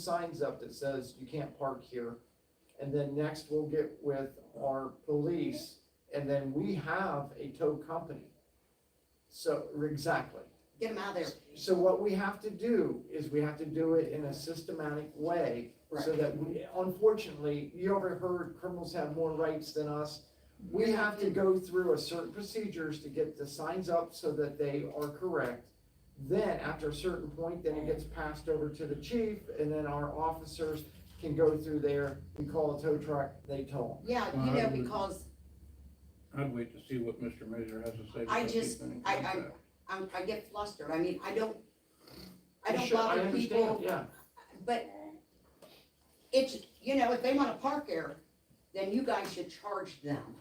signs up that says you can't park here. And then next we'll get with our police and then we have a tow company. So, exactly. Get them out of there. So what we have to do is we have to do it in a systematic way so Right. that we, unfortunately, you ever heard criminals have more rights than us? We have to go through a certain procedures to get the signs up so that they are correct. Then after a certain point, then it gets passed over to the chief and then our officers can go through there. We call a tow truck, they tow Yeah, you know, because I'd wait to see what Mr. Mazur has to say. I because just- he's been in I- I- contact. I'm, I get flustered. I mean, I don't, I them. don't Sure, bother understand, people, Yeah, but it's, you know, if they wanna park there, then you guys should charge them.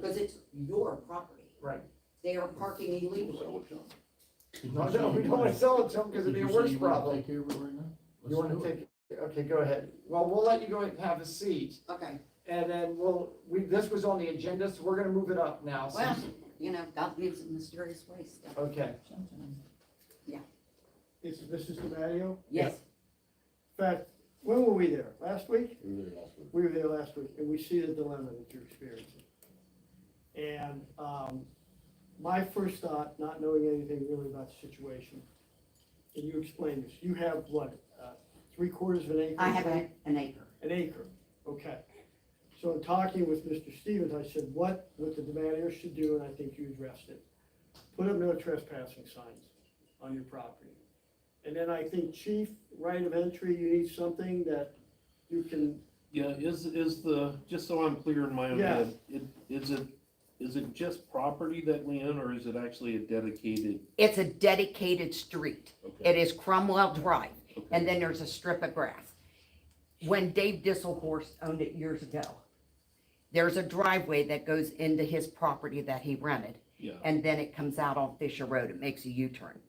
Cause it's your property. Right. They are parking We'll illegally. sell it to him. no, no, we don't wanna sell it to them because it'd be a worse problem. Take care of it right now? You wanna take, okay, go ahead. Well, we'll let you go ahead and have a seat. Okay, And then we'll, we, this was on the agenda, so we're gonna move it up now. so- well, you know, God lives in mysterious ways. Okay, This is Mr. DiMatteo. Yes, In fact, when were we there? Last week? We really lost it. We were there last week, and we see the dilemma that you're experiencing. And, um, my first thought, not knowing anything really about the situation, and you explained this, you have what, uh, three quarters of an acre? I have a- an acre. An acre, okay. So in talking with Mr. Stevens, I said, what, what the DiMatteo should do, and I think you addressed it, put up no trespassing signs on your property. And then I think chief, right of entry, you need something that you can, Yeah, is, is the, just so I'm clear in my own Yeah. head, it, is it, is it just property that we own, or is it actually a dedicated? It's a dedicated street. Okay, It is Cromwell Drive, okay. and then there's a strip of grass. When Dave Disselhorst owned it years ago, there's a driveway that goes into his property that he rented, Yeah, and then it comes out on Fisher Road. It makes a U-turn.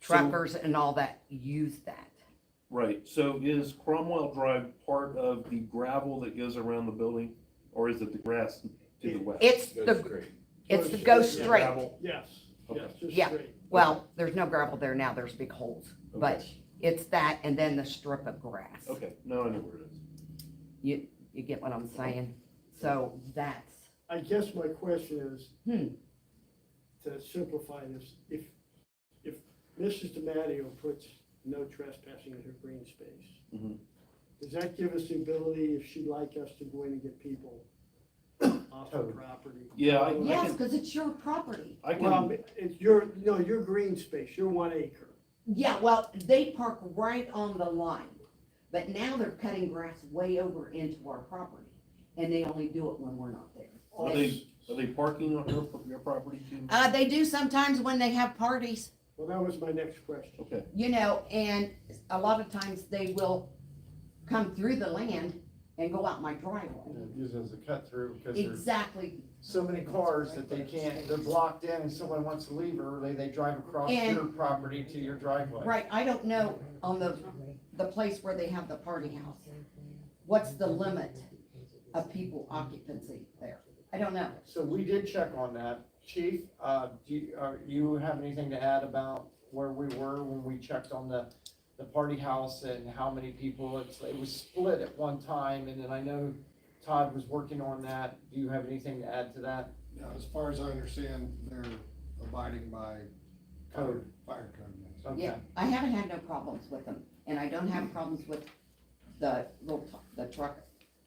So- Truckers and all that use that. right, so is Cromwell Drive part of the gravel that goes around the building, or is it the grass to the west? It's the, it's the go Yeah. straight. Gravel? yes, yes, Okay. just Yeah. straight. Well, there's no gravel there now. There's big holes. But it's that and then the strip of grass. Okay, now I know where it is. You get what I'm saying? So that's I guess my question is, Hmm. to simplify this, if, if Mrs. DiMatteo puts no trespassing in her green space, Mhm. does that give us the ability, if she'd like us to go in and get people off the Totally. property? Yeah, I- I Yes, can- because it's your property. I Well, can, it's your, no, your green space, your one acre. Yeah, well, they park right on the line, but now they're cutting grass way over into our property, and they only do it when we're not there. are they, are they parking on your, your property too? Uh, they do sometimes when they have parties, Well, that was my next question. Okay, you know, and a lot of times they will come through the land and go out my driveway. use it as a cut through because there's Exactly, so many cars that they can't, they're blocked in and someone wants to leave early, they drive across And- your property to your driveway. right, I don't know on the, the place where they have the party house, what's the limit of people occupancy there? I don't know. So we did check on that. Chief, uh, do you, uh, you have anything to add about where we were when we checked on the, the party house and how many people? It's, it was split at one time and then I know Todd was working on that. Do you have anything to add to that? Now, as far as I understand, they're abiding by Code. fire code, Oh, yes. Okay. Yeah, I haven't had no problems with them, and I don't have problems with the little, t- the truck,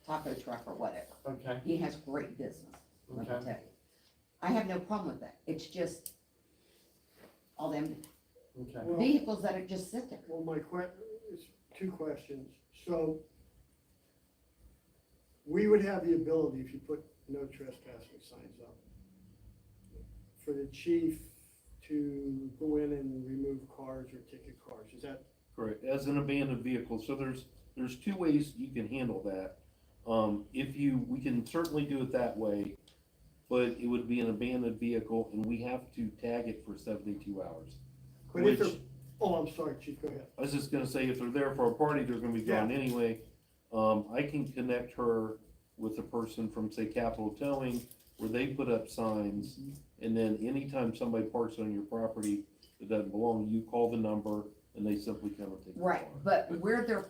taco truck or whatever. Okay, He has great business, let me okay, tell you. I have no problem with that, it's just all them okay. Well, vehicles that are just sit there. Well, my que, it's two questions. So we would have the ability, if you put no trespassing signs up, for the chief to go in and remove cars or ticket cars. Is that, Correct, as an abandoned vehicle, so there's, there's two ways you can handle that. Um, if you, we can certainly do it that way, but it would be an abandoned vehicle and we have to tag it for seventy-two hours. but if Which, they're, oh, I'm sorry, chief, go ahead. I was just gonna say, if they're there for a party, they're gonna be gone anyway. Um, I can connect her with a person from, say, Capital Towing, where they put up signs. And then anytime somebody parks on your property that doesn't belong, you call the number and they simply come and take the car. Right, but where they're